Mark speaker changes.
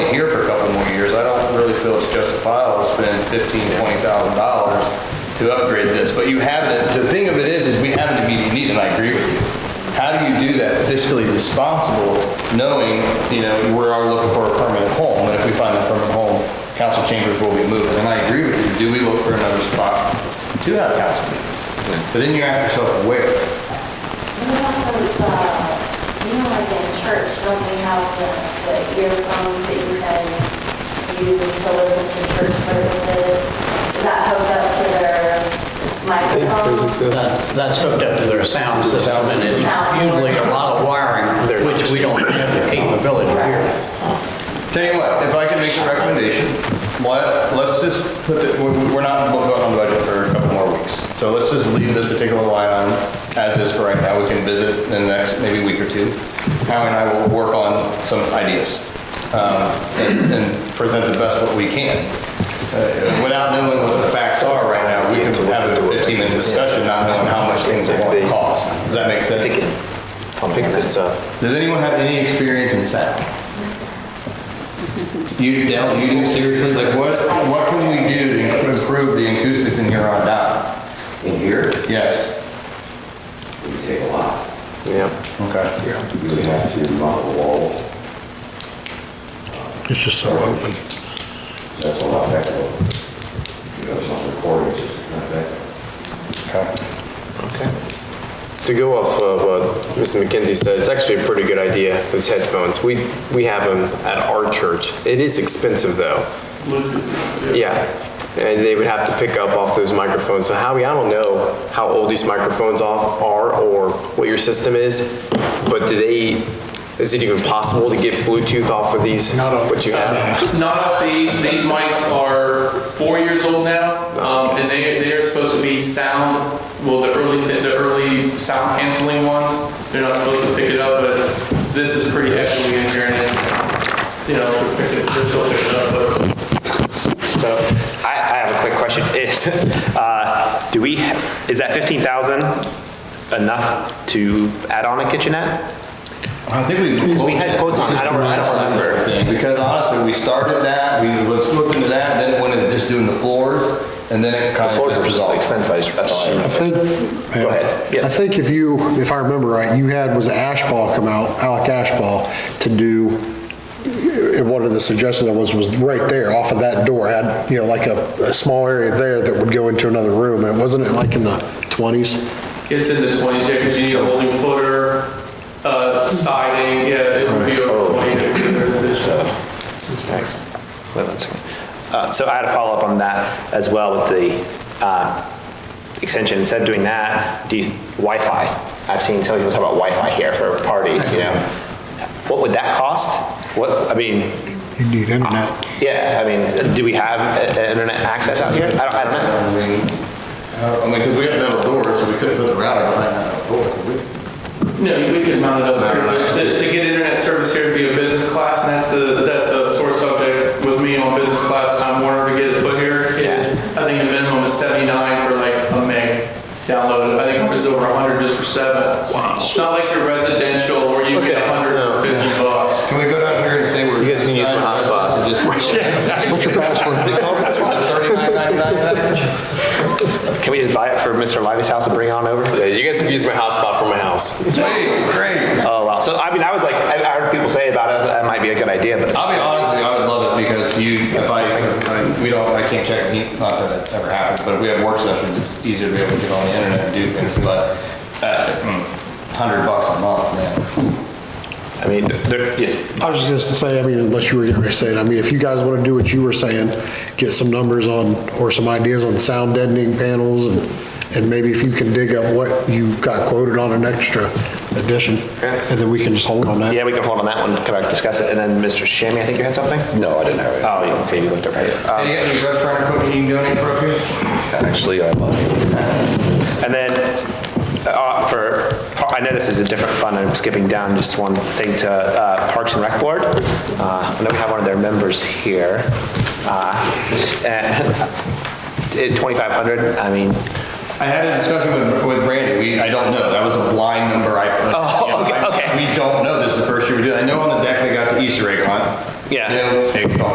Speaker 1: fifteen, twenty thousand dollars to upgrade this, but you haven't, the thing of it is, is we haven't immediately need, and I agree with you. How do you do that fiscally responsible, knowing, you know, we are looking for a permanent home, and if we find a permanent home, council chambers will be moving, and I agree with you, do we look for another spot to have council meetings? But then you ask yourself, where?
Speaker 2: You know those, uh, you know like in church, don't they have the the earphones that you can use to listen to church services? Is that hooked up to their microphone?
Speaker 3: That- That's hooked up to their sound system, and it's
Speaker 2: Sound.
Speaker 3: usually a lot of wiring, which we don't have the capability here.
Speaker 1: Tell you what, if I can make a recommendation, let, let's just put the, we- we- we're not voting on the budget for a couple more weeks. So let's just leave this particular line on as is for right now. We can visit in the next, maybe week or two. Howie and I will work on some ideas, um, and, and present the best what we can. Uh, Without knowing what the facts are right now, we can have a 15-minute discussion, not knowing how much things are going to cost. Does that make sense?
Speaker 4: I'll pick this up.
Speaker 1: Does anyone have any experience in sound? You, Dell, you do seriously, like what, what can we do to improve the acoustics in here on down?
Speaker 5: In here,
Speaker 1: Yes.
Speaker 5: we take a lot.
Speaker 4: Yeah.
Speaker 1: Okay.
Speaker 5: Yeah. You really have to mount a wall.
Speaker 6: It's just so open.
Speaker 5: That's a lot better. You have some recordings, it's not that.
Speaker 4: To go off of what Mr. McKenzie said, it's actually a pretty good idea, those headphones. We, we have them at our church. It is expensive, though. Yeah, and they would have to pick up off those microphones. So Howie, I don't know how old these microphones off are or what your system is, but do they, is it even possible to get Bluetooth off of these?
Speaker 3: Not off
Speaker 4: What you have?
Speaker 7: Not off these, these mics are four years old now, um, and they, they are supposed to be sound, well, the early, the early sound canceling ones, they're not supposed to pick it up, but this is pretty heavily in here, and it's, you know, they're picking- they're still picking it up, but
Speaker 8: So I, I have a quick question. Is, uh, do we, is that 15,000 enough to add on a kitchenette?
Speaker 1: I think we.
Speaker 8: Because we had quotes on it. I don't- I don't remember.
Speaker 1: Because honestly, we started that, we was looking to that, then it went into just doing the floors, and then it kind of just dissolved.
Speaker 4: that's all I
Speaker 6: I think. Go
Speaker 8: ahead. Yes.
Speaker 6: I think if you, if I remember right, you had, was Ashball come out, Alec Ashball, to do, eh, one of the suggestions that was, was right there off of that door, had, you know, like a, a small area there that would go into another room, and wasn't it like in the 20s?
Speaker 7: it's in the twenties, yeah, because you need a whole new footer, uh, siding, yeah, it would be over twenty uh, to get rid of this.
Speaker 8: Wait one second. Uh, So I had a follow-up on that as well with the uh, extension. Instead of doing that, do you, Wi-Fi? I've seen some people talk about Wi-Fi here for parties, you know? What would that cost? What, I mean,
Speaker 6: You need internet.
Speaker 8: yeah, I mean, do we have uh, internet access out here? I don't, I don't know.
Speaker 1: I mean, I mean, because we had metal doors, so we couldn't put the router behind that door, could we?
Speaker 7: No, we could mount it up here, but to, to get internet service here would be a business class, and that's the, that's a sore subject with me on business class, I'm wanting to get it put here, is, I think the minimum is seventy-nine for like a meg downloaded, I think it's over a hundred just for seven. Wow. It's not like your residential where you get
Speaker 4: Okay.
Speaker 7: a hundred or fifty bucks.
Speaker 1: Can we go down here and say we're.
Speaker 4: You guys can use my hotspot.
Speaker 1: What's your password?
Speaker 8: Can we just buy it for Mr. Livy's house and bring it on over?
Speaker 4: Yeah, you guys have used my hotspot for my house.
Speaker 1: Hey, great.
Speaker 8: Oh, wow. So, I mean, I was like, I I heard people say about it, that might be a good idea, but
Speaker 1: I'll be honest with you, I would love it because you, if I, I- we don't, I can't check, heat, not that it ever happens, but if we have work sessions, it's easier to be able to get on the internet and do things, but uh, mm, hundred bucks a month, man.
Speaker 8: I mean, there, yes,
Speaker 6: I was just gonna say, I mean, unless you were gonna say it, I mean, if you guys wanna do what you were saying, get some numbers on, or some ideas on sound deadening panels, and, and maybe if you can dig up what you got quoted on an extra addition,
Speaker 8: Yeah.
Speaker 6: and then we can just hold on that.
Speaker 8: yeah, we can hold on that one, come back, discuss it, and then Mr. Shammy, I think you had something?
Speaker 9: No, I didn't have it.
Speaker 8: Oh, yeah, okay, you looked up right here.
Speaker 1: Hey, you got any restaurant equipment you can donate for up here?
Speaker 9: Actually, I lied.
Speaker 8: And then, uh, for, I know this is a different fund, I'm skipping down just one thing to uh, Parks and Rec Board. Uh, I know we have one of their members here. Uh, And it- 2,500, I mean,
Speaker 1: I had a discussion with, with Brandy, we, I don't know, that was a blind number I put.
Speaker 8: Oh,
Speaker 1: You know,
Speaker 8: okay,
Speaker 1: I-
Speaker 8: okay.
Speaker 1: We don't know, this is the first year we do it, I know on the deck they got the Easter egg hunt.
Speaker 8: Yeah.
Speaker 1: You know, egg hunt.